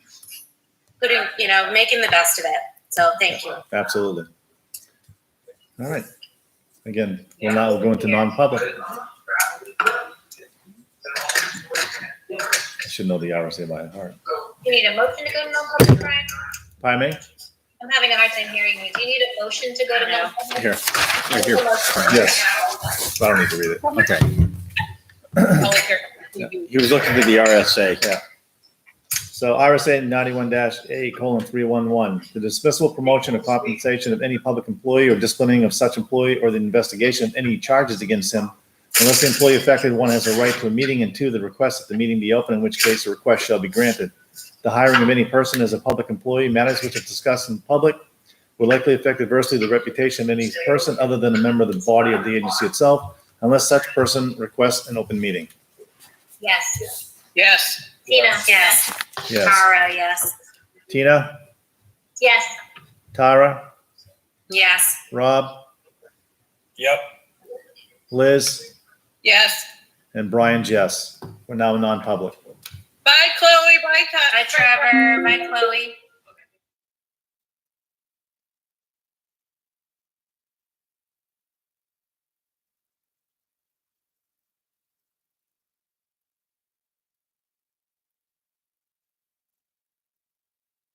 you know, making the best of it. So thank you. Absolutely. All right. Again, we'll now go into non-public. I should know the RSA by heart. You need a motion to go to non-public, Brian? Pardon me? I'm having a hard time hearing you. Do you need a motion to go to non-public? Here, Right here. yes. I don't need to read it. Okay. Yeah. He was looking to the RSA. Yeah. So RSA ninety-one dash A colon three one one, the dismissal, promotion, or compensation of any public employee or disciplining of such employee or the investigation of any charges against him unless the employee affected one has a right to a meeting and two, the request that the meeting be open, in which case the request shall be granted. The hiring of any person as a public employee, matters which are discussed in public will likely affect adversely the reputation of any person other than a member of the body of the agency itself unless such person requests an open meeting. Yes. Yes. Tina? Yes. Yes. Tara, yes. Tina, Yes. Tara, Yes. Rob, Yep. Liz, Yes. and Brian Jess. We're now non-public. Bye, Chloe. Bye, Ty. Bye, Trevor. Bye, Chloe.